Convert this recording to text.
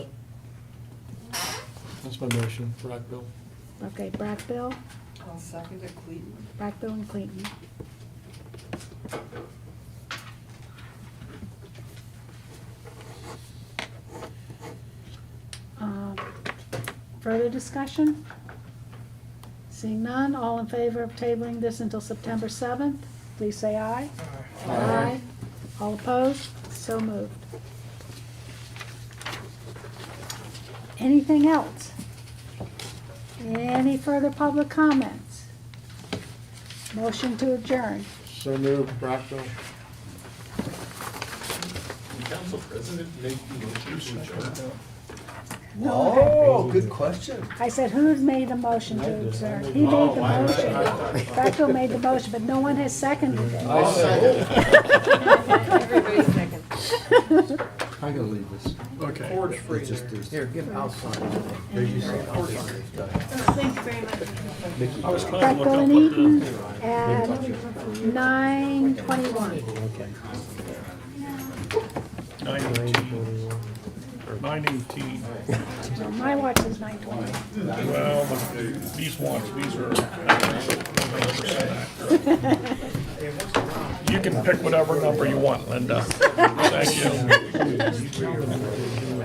That's my motion, Rockville. Okay, Brackbill, I'll second it, Clayton. Brackbill and Clayton. Um, Further discussion? Seeing none, all in favor of tabling this until September 7th, please say aye. Aye. All opposed? So moved. Anything else? Any further public comments? Motion to adjourn. So moved, Rockville. Can council president make the motion to adjourn? Oh, good question. I said, who made the motion to adjourn? He made the motion. Beckel made the motion, but no one has seconded it. I second. Everybody second. I'm gonna leave this. Okay. Forge It's Freezer. just, there's. Here, get outside. Thank you very much. I was trying to Beckel look up and what the. Eaton at nine twenty-one. Nineteen, nine eighteen. Well, my watch is nine twenty. Well, but these ones, these are. uh, You can pick whatever number you want, Linda. Thank you.